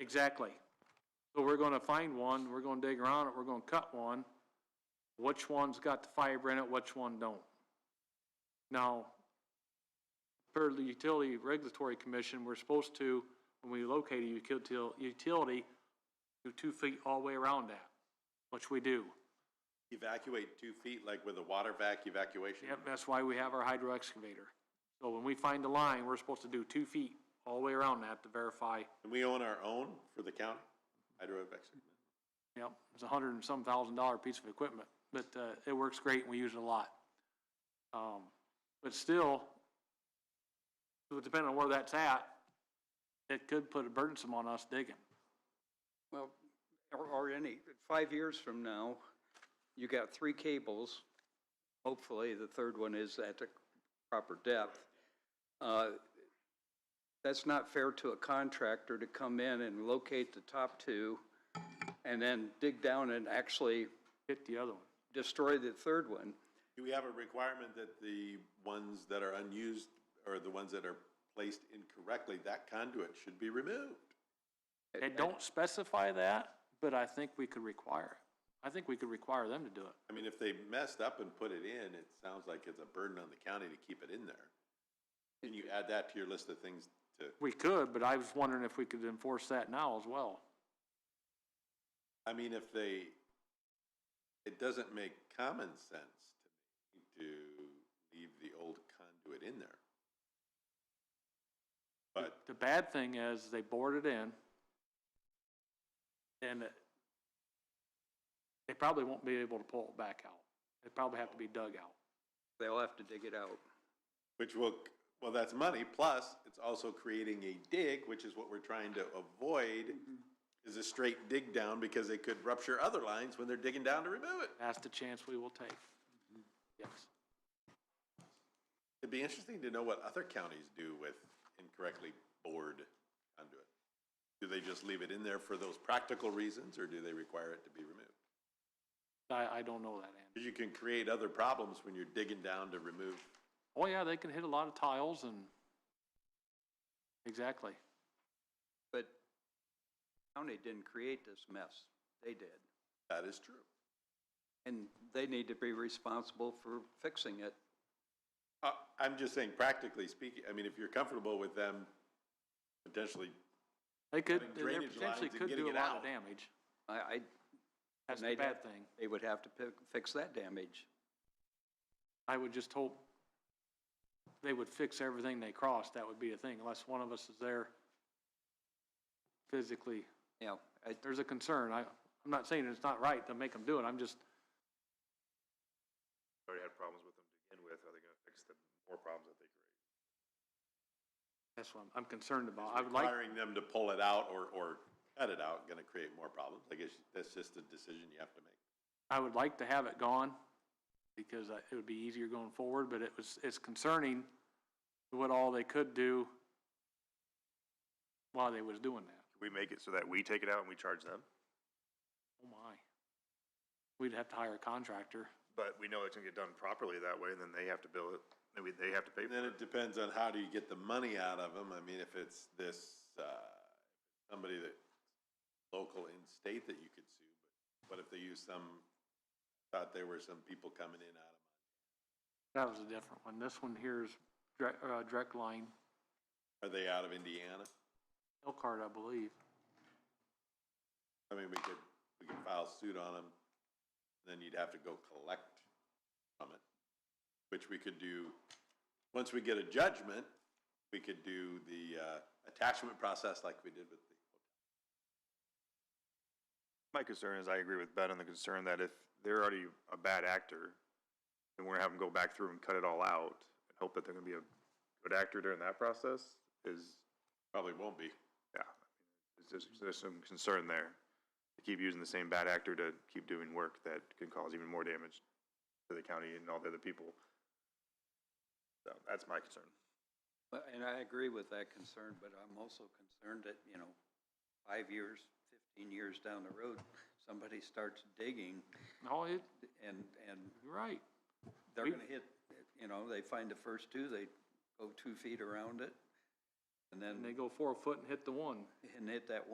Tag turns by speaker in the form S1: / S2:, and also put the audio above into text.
S1: Exactly. So we're gonna find one, we're gonna dig around it, we're gonna cut one. Which one's got the fiber in it, which one don't? Now, per the Utility Regulatory Commission, we're supposed to, when we locate a utility, utility, do two feet all the way around that, which we do.
S2: Evacuate two feet, like with a water vac evacuation?
S1: Yep, that's why we have our hydro excavator. So when we find a line, we're supposed to do two feet all the way around that to verify,
S2: And we own our own for the county? Hydro evac-
S1: yep, it's a hundred and some thousand dollar piece of equipment, but, uh, it works great and we use it a lot. Um, but still, so depending on where that's at, it could put a burdensome on us digging.
S3: Well, or, or any, five years from now, you got three cables. Hopefully, the third one is at the proper depth. Uh, That's not fair to a contractor to come in and locate the top two and then dig down and actually
S1: Hit the other one.
S3: destroy the third one.
S2: Do we have a requirement that the ones that are unused, or the ones that are placed incorrectly, that conduit should be removed?
S1: They don't specify that, but I think we could require it. I think we could require them to do it.
S2: I mean, if they messed up and put it in, it sounds like it's a burden on the county to keep it in there. Can you add that to your list of things to,
S1: We could, but I was wondering if we could enforce that now as well.
S2: I mean, if they, it doesn't make common sense to me to leave the old conduit in there. But
S1: The bad thing is they bored it in and it- they probably won't be able to pull it back out. It'd probably have to be dug out.
S3: They'll have to dig it out.
S2: Which will, well, that's money, plus it's also creating a dig, which is what we're trying to avoid, is a straight dig down because they could rupture other lines when they're digging down to remove it.
S1: That's the chance we will take.
S2: Mm-hmm.
S1: Yes.
S2: It'd be interesting to know what other counties do with incorrectly bored conduit. Do they just leave it in there for those practical reasons, or do they require it to be removed?
S1: I, I don't know that, Andy.
S2: Because you can create other problems when you're digging down to remove.
S1: Oh, yeah, they can hit a lot of tiles and, exactly.
S3: But county didn't create this mess. They did.
S2: That is true.
S3: And they need to be responsible for fixing it.
S2: Uh, I'm just saying, practically speaking, I mean, if you're comfortable with them potentially
S1: They could,
S2: Cutting
S1: they
S2: drainage
S1: potentially
S2: lines and
S1: could
S2: getting
S1: do a
S2: it
S1: lot of
S2: out.
S1: damage.
S3: I, I
S1: That's
S3: And
S1: the
S3: they'd
S1: bad
S3: have-
S1: thing.
S3: they would have to pick, fix that damage.
S1: I would just hope they would fix everything they crossed. That would be a thing, unless one of us is there physically.
S3: Yeah, I,
S1: There's a concern. I, I'm not saying it's not right to make them do it. I'm just,
S4: already had problems with them to begin with, are they gonna fix the more problems that they create?
S1: that's what I'm, I'm concerned about. I would like,
S2: requiring them to pull it out or, or cut it out, gonna create more problems. I guess that's just a decision you have to make.
S1: I would like to have it gone because I- it would be easier going forward, but it was, it's concerning what all they could do while they was doing that.
S4: Can we make it so that we take it out and we charge them?
S1: Oh my. We'd have to hire a contractor.
S4: But we know it's gonna get done properly that way, and then they have to bill it, then we, they have to pay
S2: And
S4: for
S2: then it
S4: it.
S2: depends on how do you get the money out of them. I mean, if it's this, uh, somebody that, local in state that you could sue, but what if they use some, thought there were some people coming in out of
S1: That was a different one. This one here is direct, uh, direct line,
S2: Are they out of Indiana?
S1: Elkhart, I believe.
S2: I mean, we could, we could file suit on them, then you'd have to go collect from it, which we could do, once we get a judgment, we could do the, uh, attachment process like we did with the,
S4: My concern is, I agree with Ben on the concern that if they're already a bad actor, then we're gonna have them go back through and cut it all out, and hope that they're gonna be a good actor during that process, is,
S2: probably won't be.
S4: yeah. There's, just- there's some concern there. They Keep using the same bad actor to keep doing work that can cause even more damage to the county and all the other people. So, that's my concern.
S3: but- and I agree with that concern, but I'm also concerned that, you know, five years, fifteen years down the road, somebody starts digging
S1: No, Oh, it,
S3: and, and
S1: you're right.
S3: they're
S1: We-
S3: gonna hit, you know, they find the first two, they go two feet around it, and
S1: And they
S3: then,
S1: go four foot and hit the one.
S3: and hit that one.